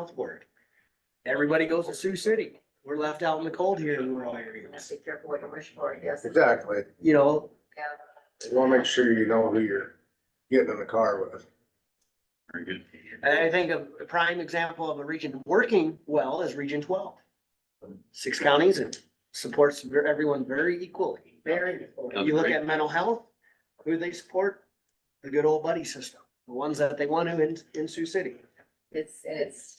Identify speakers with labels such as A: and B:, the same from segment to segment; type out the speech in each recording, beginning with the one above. A: southward. Everybody goes to Sioux City. We're left out in the cold here in rural areas.
B: Be careful what you wish for, yes.
C: Exactly.
A: You know,
B: Yeah.
C: You wanna make sure you know who you're getting in the car with.
D: Very good.
A: and I think a a prime example of a region working well is Region twelve. Six counties and supports ver- everyone very equally.
B: Very.
D: Yeah.
A: You look at mental health, who they support? The good old buddy system, the ones that they want to in, in Sioux City.
B: It's, and it's,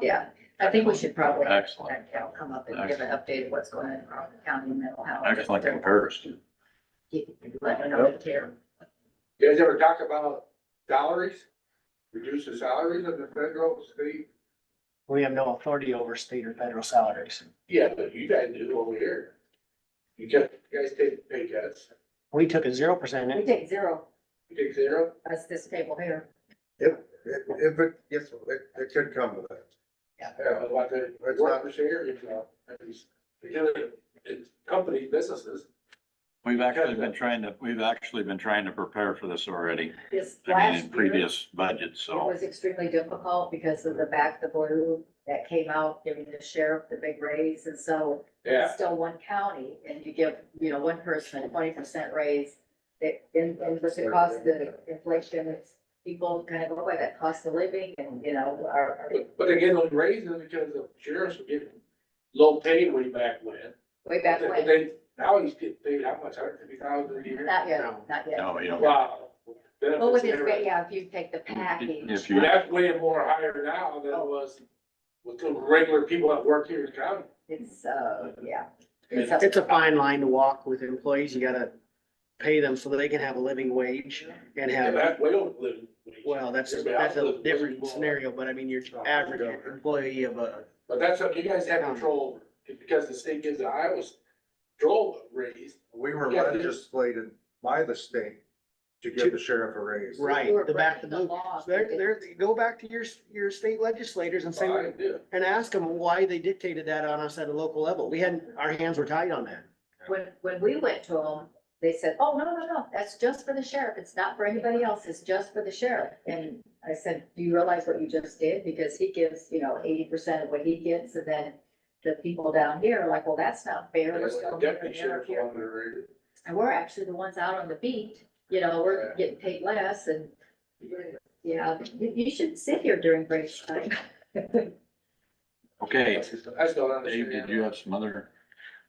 B: yeah, I think we should probably, have
D: Excellent.
B: that gal come up and give an update of what's going on in Crawford County mental health.
D: I just like that comparison.
B: Let her know that care.
E: You guys ever talk about salaries? Reduce the salaries of the federal, state?
A: We have no authority over state or federal salaries.
E: Yeah, but you guys do over here. You guys, you guys take pay cuts,
A: We took a zero
B: We
A: percent.
B: take zero,
E: you take zero?
B: that's this table here.
C: If, if, if it gets, it, it could come to that.
E: Yeah, but what the,
C: That's
E: what
C: not-
E: the share is, uh, is, because it's company businesses.
D: We've actually been trying to, we've actually been trying to prepare for this already,
B: This
D: I mean,
B: last
D: in
B: year, it
D: previous budgets, so.
B: was extremely difficult because of the back, the blue that came out, giving the sheriff the big raise, and so
E: Yeah,
B: still one county and you give, you know, one person twenty percent raise. That in, in with the cost of the inflation, it's people kind of go by that cost of living and, you know, our, our-
E: but, but again, those raises because the sheriffs were getting low pay way back when.
B: way back
E: But
B: when.
E: They, now he's getting paid how much, hundred fifty thousand a year?
B: Not yet,
A: No.
B: not yet.
D: No, you know,
E: Wow.
B: But with this,
E: Benefits
B: rate,
E: and
B: yeah, if you take the package.
D: If you-
E: everything. That's way more higher now than it was with the regular people that work here in town.
B: It's, uh, yeah. It's up-
A: It's a fine line to walk with employees. You gotta pay them so that they can have a living wage and
E: And
A: have,
E: that's way over living wage.
A: well, that's, that's a different scenario, but I mean, your average employee of a,
E: But that's what you guys have control over, because the state gives the Iowa's control raise.
C: We were
E: Yeah.
C: legislated by the state to give the sheriff a raise.
A: right,
B: You were
A: the back of the
B: breaking
A: blue.
B: law.
A: There, there, go back to your, your state legislators and say,
E: I do.
A: and ask them why they dictated that on us at a local level. We hadn't, our hands were tied on that.
B: When, when we went to them, they said, oh, no, no, no, that's just for the sheriff. It's not for anybody else. It's just for the sheriff. And I said, do you realize what you just did? Because he gives, you know, eighty percent of what he gets and then the people down here are like, well, that's not fair. We're still here and they're
E: Deputy sheriff's
B: here."
E: on the raise.
B: And we're actually the ones out on the beat, you know, we're
E: Yeah.
B: getting paid less and yeah, you, you should sit here during break time.
D: okay,
E: I still don't
D: Dave,
E: understand.
D: did you have some other?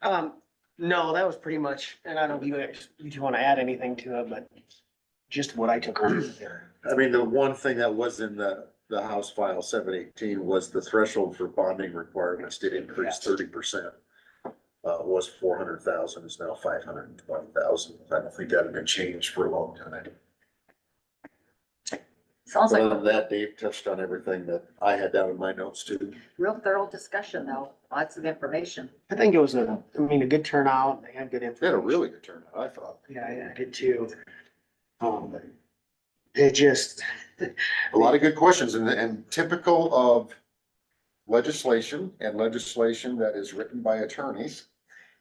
A: Um, no, that was pretty much, and I don't know if you, guys- you two want to add anything to it, but just what I took on there.
F: I mean, the one thing that was in the, the House File seven eighteen was the threshold for bonding requirements did increase thirty percent. Uh, was four hundred thousand, is now five hundred and twenty thousand. I don't think that had been changed for a long time.
B: Sounds like
F: Other than
B: a
F: that, Dave touched on everything that I had down in my notes too.
B: real thorough discussion though, lots of information.
A: I think it was a, I mean, a good turnout. They had good
F: They had a
A: information.
F: really good turnout, I thought.
A: Yeah, I- I did too. Um, it just,
F: A lot of good questions and, and typical of legislation and legislation that is written by attorneys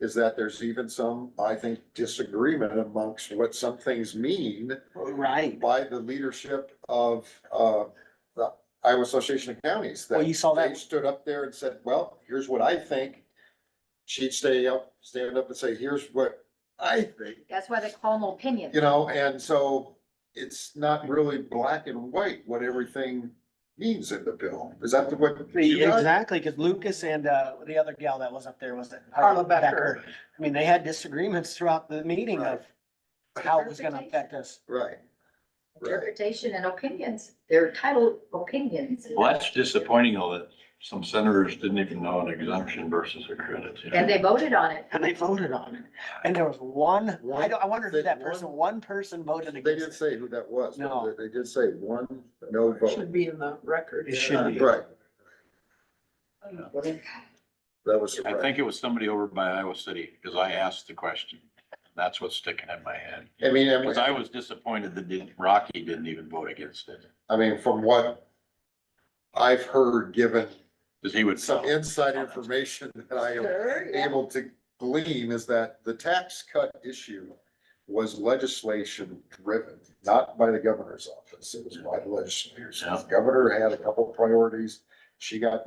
F: is that there's even some, I think, disagreement amongst what some things mean
A: right.
F: by the leadership of, uh, the Iowa Association of Counties.
A: Well, you saw that-
F: They stood up there and said, well, here's what I think. She'd stay up, stand up and say, here's what I think
B: That's why they call them opinions.
F: you know, and so it's not really black and white what everything means in the bill. Is that the what?
A: Exactly, because Lucas and, uh, the other gal that was up there was Carla Becker. I mean, they had disagreements throughout the meeting of how it was gonna affect us.
F: Right. Right.
B: Interpretation and opinions. They're titled opinions.
D: Well, that's disappointing though, that some senators didn't even know an exemption versus a credit. you know.
B: And they voted on it.
A: And they voted on it. And there was one, I don't, I wonder who that person, one person voted
F: They didn't
A: against. it.
F: say who that was. but
A: No.
F: They they did say one, no vote.
G: Should be in the record.
A: It should be.
F: Right. That was.
D: I
F: surprising.
D: think it was somebody over by Iowa City, because I asked the question. That's what's sticking in my head.
F: I mean, and-
D: Because I was disappointed that didn't- Rocky didn't even vote against it,
F: I mean, from what I've heard, given
D: because he would.
F: some inside information that I am
B: Sure, yeah.
F: able to glean is that the tax cut issue was legislation driven, not by the governor's office. It was by the legislators. The governor had a couple of priorities. She got